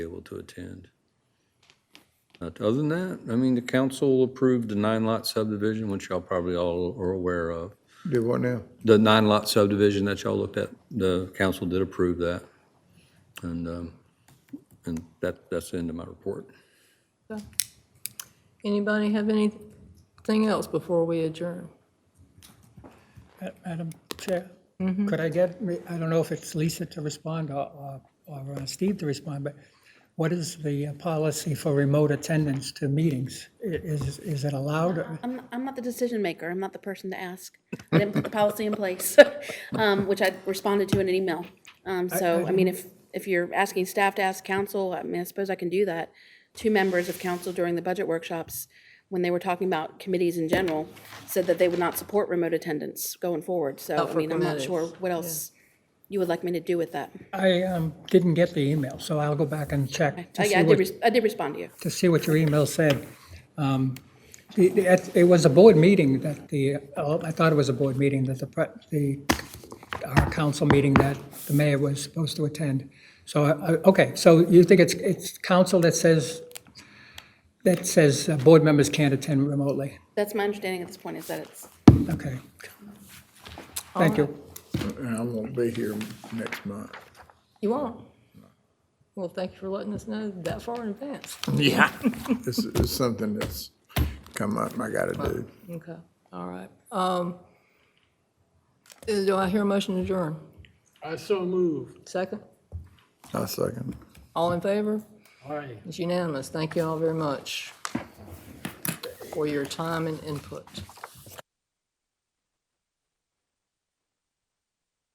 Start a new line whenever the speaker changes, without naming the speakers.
able to attend. But Other than that, I mean, the council approved the nine lot subdivision, which y'all probably all are aware of.
Do what now?
The nine lot subdivision that y'all looked at, the council did approve that. And, um, and that, that's the end of my report.
Anybody have anything else before we adjourn?
Ma- Madam Chair, could I get, re- I don't know if it's Lisa to respond or, or- or uh, Steve to respond, but what is the uh, policy for remote attendance to meetings? I- Is, is it allowed? or-
Um, I'm, I'm not the decision maker. I'm not the person to ask. I didn't put the policy in place, um, which I responded to in an email. Um, so, I mean, if, if you're asking staff to ask council, I mean, I suppose I can do that. Two members of council during the budget workshops, when they were talking about committees in general, said that they would not support remote attendance going forward. So, I
Oh, for
mean, I'm not
committees,
sure what else you would like me to do with that.
I um, didn't get the email, so I'll go back and check to
Oh, I, I
see
did,
what,
res- I did respond to you.
to see what your email said. Um, the- the- It it was a board meeting that the, oh, I thought it was a board meeting that the, pre- the, our council meeting that the mayor was supposed to attend. So, uh, okay, so you think it's, it's council that says, that says uh, board members can't attend remotely?
That's my understanding at this point is that it's,
Okay. Thank you.
And I won't be here next month.
You won't? Well, thank you for letting us know that far in advance.
Yeah. This is something that's come up, I gotta do.
Okay, all right. Um, is- Do I hear a motion to adjourn?
I so move.
Second?
I second.
All in favor?
Aye.
It's unanimous. Thank you all very much for your time and input.